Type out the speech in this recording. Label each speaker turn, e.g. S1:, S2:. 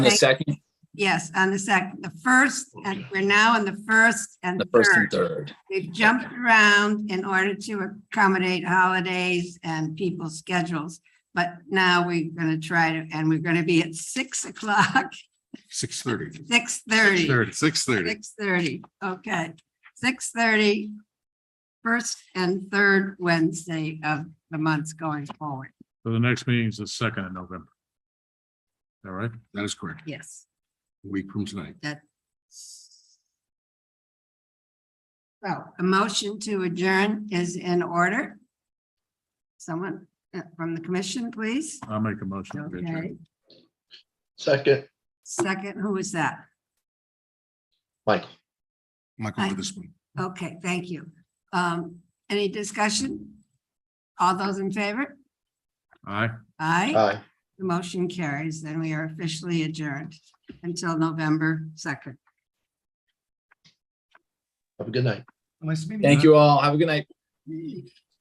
S1: the
S2: Thank-
S1: second,
S2: Yes, on the second, the first, and we're now on the first and
S1: the first and
S2: third.
S1: third.
S2: We've jumped around in order to accommodate holidays and people's schedules. But now we're gonna try to, and we're gonna be at six o'clock,
S3: Six thirty.
S2: six thirty.
S3: Six thirty.
S2: Six thirty, okay. Six thirty, first and third Wednesday of the months going forward.
S4: So the next meeting is the second of November. All right,
S3: That is correct.
S2: Yes.
S3: A week from tonight.
S2: So Oh, a motion to adjourn is in order. Someone uh, from the commission, please.
S4: I'll make a motion. Uh, to adjourn.
S2: Okay,
S5: Second,
S2: second, who is that?
S5: Michael.
S3: Michael
S2: Aye.
S3: Witherspoon.
S2: Okay, thank you. Um, any discussion? All those in favor?
S4: Aye.
S2: Aye.
S5: Aye.
S2: The motion carries, then we are officially adjourned until November second.
S5: Have a good night.
S1: Thank you all. Have a good night.